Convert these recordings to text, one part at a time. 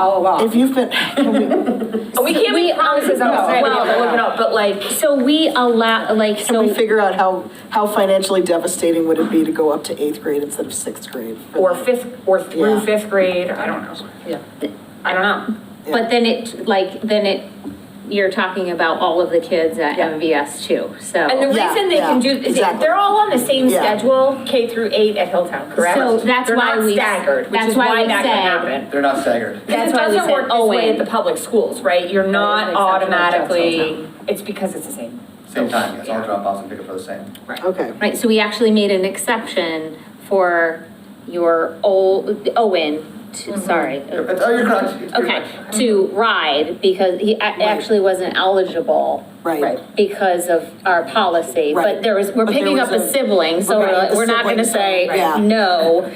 all If along. you've been, Oh, We can't make promises outside of Well, the well, no, other. but like, So we allow, like, can we so, figure out how, how financially devastating would it be to go up to eighth grade instead of sixth grade? Or fifth, or through Yeah. fifth grade, I don't know. yeah. I don't know. but then it, like, then it, you're talking about all of the kids at Yeah. MVS too, And the so. Yeah, reason they can yeah, do, they- exactly. they're all on the same Yeah. schedule, K through eight at Hilltown, correct? So that's They're why not we- staggered, which that's is why why we that said- can happen. They're not staggered. Because it That's why we doesn't said work this way at Owen. the public schools, right? You're not an exception at Jack's automatically, Hilltown. it's because it's the same. Same time, yes, all Yeah. dropouts and pickups are the same. Okay, Right, so we actually made an exception for your old, Owen, to- Mm-hmm. sorry. You're- it's- Oh, you're correct. It's pretty much- Okay, to ride because he a- actually wasn't eligible right. Right. because of our policy. Right. But there was, we're But there picking up was a a- sibling, so Right, we're like, the we're not gonna sibling, say right. Yeah. no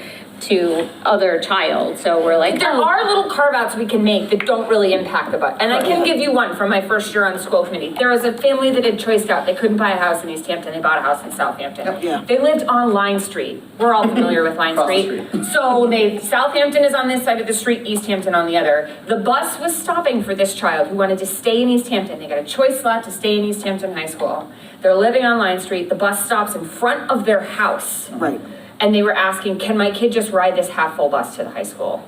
to other child, so we're like, There oh, are little carve-outs we can make that don't really impact the budget. And I can give you one from my first year on school committee. There was a family that had choiced out, they couldn't buy a house in East Hampton, they bought a house in Southampton. Yeah. They lived on Line Street. We're all familiar with Line Across the Street. So they, Southampton is on this side of the street, East Hampton on the other. The bus was stopping for this child who wanted to stay in East Hampton. They got a choice slot to stay in East Hampton High School. They're living on Line Street. The bus stops in front of their house. Right. And they were asking, can my kid just ride this half full bus to the high school?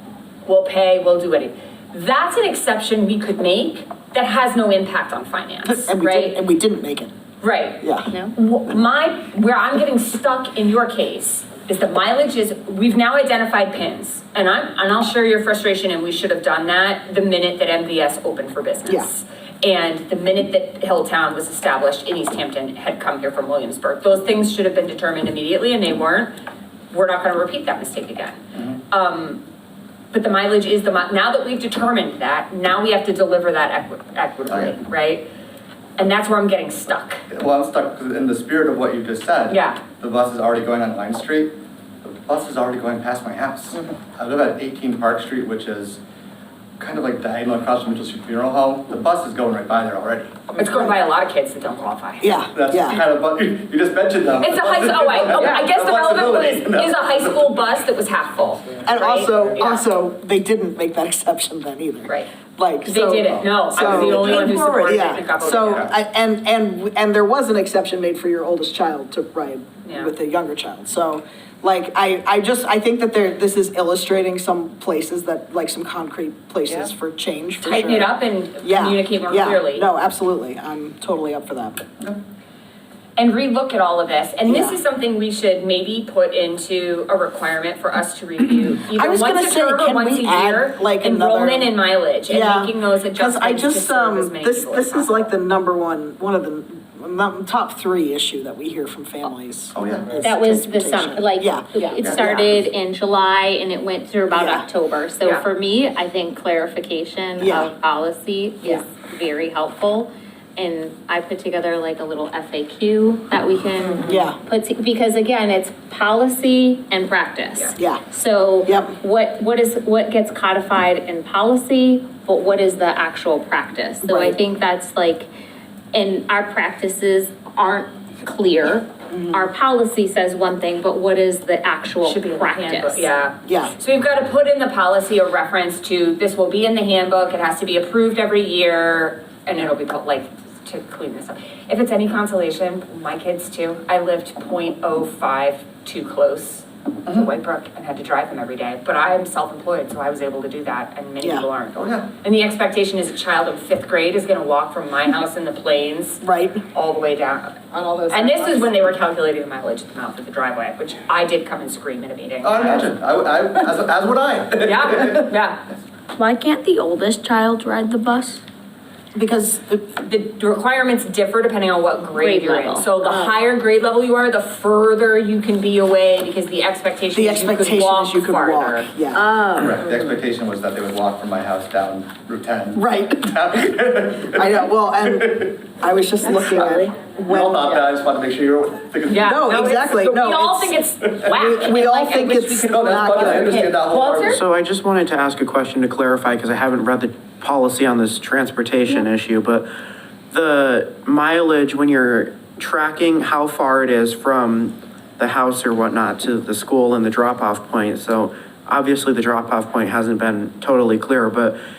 We'll pay, we'll do anything. That's an exception we could make that has no impact on finance, And we didn't, right? and we didn't make it, Right. yeah. no. Wh- My, where I'm getting stuck in your case is the mileage is, we've now identified pins. And I'm, and I'll share your frustration, and we should have done that the minute that MVS opened for business. And the minute that Hilltown was established in East Hampton had come here from Williamsburg. Those things should have been determined immediately, and they weren't. We're not gonna repeat that mistake again. Um, but the mileage is the, mi- now that we've determined that, now we have to deliver that equi- equitably, Okay. right? And that's where I'm getting stuck. Well, I'm stuck 'cause in the spirit of what you just said. Yeah. The bus is already going on Line Street. The bus is already going past my house. Mm-hmm. I live at 18 Park Street, which is kind of like diagonal across from Mitchell Street Funeral Home. The bus is going right by there already. It's going by a lot of kids that don't qualify. Yeah, That's yeah. kind of, bu- you you just mentioned them. Ah, It's a high, oh, wait, oh, I guess the relevant one is, is a high school bus that was half full. And also, Yeah. also, they didn't make that exception then either. Right. Like, They so- didn't, no, I was the so- only one who supported it and got Yeah, voted so, down. I- and, and, and there was an exception made for your oldest child to ride Yeah. with the younger child. So, like, I, I just, I think that there, this is illustrating some places that, like, some concrete places for change, for sure. Tighten it up and Yeah, communicate more yeah. clearly. No, absolutely, I'm totally up for that. And relook at all of this, and this Yeah. is something we should maybe put into a requirement for us to review. I was gonna say, can we add, like, another- Enrollment and mileage Yeah, and making those 'cause I adjustments to just, serve as um, many this, people this as is like the possible. number one, one of the, num- top three issue that we hear from families. Oh, yeah. is That was the summer, transportation. like, Yeah. it started in July and it went through about Yeah. October. So Yeah. for me, I think clarification Yeah. of policy Yeah. is very helpful. And I put together like a little FAQ that we can Yeah. put, to- because again, it's policy and Yeah. practice. Yeah. So Yep. what, what is, what gets codified in policy, but what is the actual practice? So I Right. think that's like, and our practices aren't clear. Our policy says one thing, but what is the actual Mm-hmm. Should be in the handbook, practice? yeah. Yeah. So we've got to put in the policy a reference to, this will be in the handbook, it has to be approved every year, and it'll be put like, to clean this up. If it's any consolation, my kids too, I lived 0.05 too close to White Brook and had to drive them every day, but I am self-employed, so I was able to do that, and many Yeah. people aren't. Oh, yeah. And the expectation is a child in fifth grade is gonna walk from my house in the plains Right. all the way down. On all those. And this is sidewalks. when they were calculating the mileage at the mouth of the driveway, which I did come and scream at a meeting. Oh, I imagine, I, would- I, as, as would I. Yeah, yeah. Why can't the oldest child ride the bus? Because uh, The requirements differ depending on what grade Grade you're in. level. So Oh. the higher grade level you are, the further you can be away because the expectation the is you could expectation is you walk could walk, farther. Um, yeah. Oh. Correct. The expectation was that they would walk from my house down Route 10. Right, I know, well, and I was just looking probably- at We all when, thought that, I just wanted to make sure you were thinking. Yeah. No, it's- exactly. but No, We all it's- think it's whack. we and, all like, I think wish we it's could- No, that's not fun, I good. understand that whole Walter? argument. So I just wanted to ask a question to clarify, because I haven't read the policy on this transportation issue, but the mileage, when you're tracking how far it is from the house or whatnot to the school and the drop-off point, so obviously the drop-off point hasn't been totally clear, but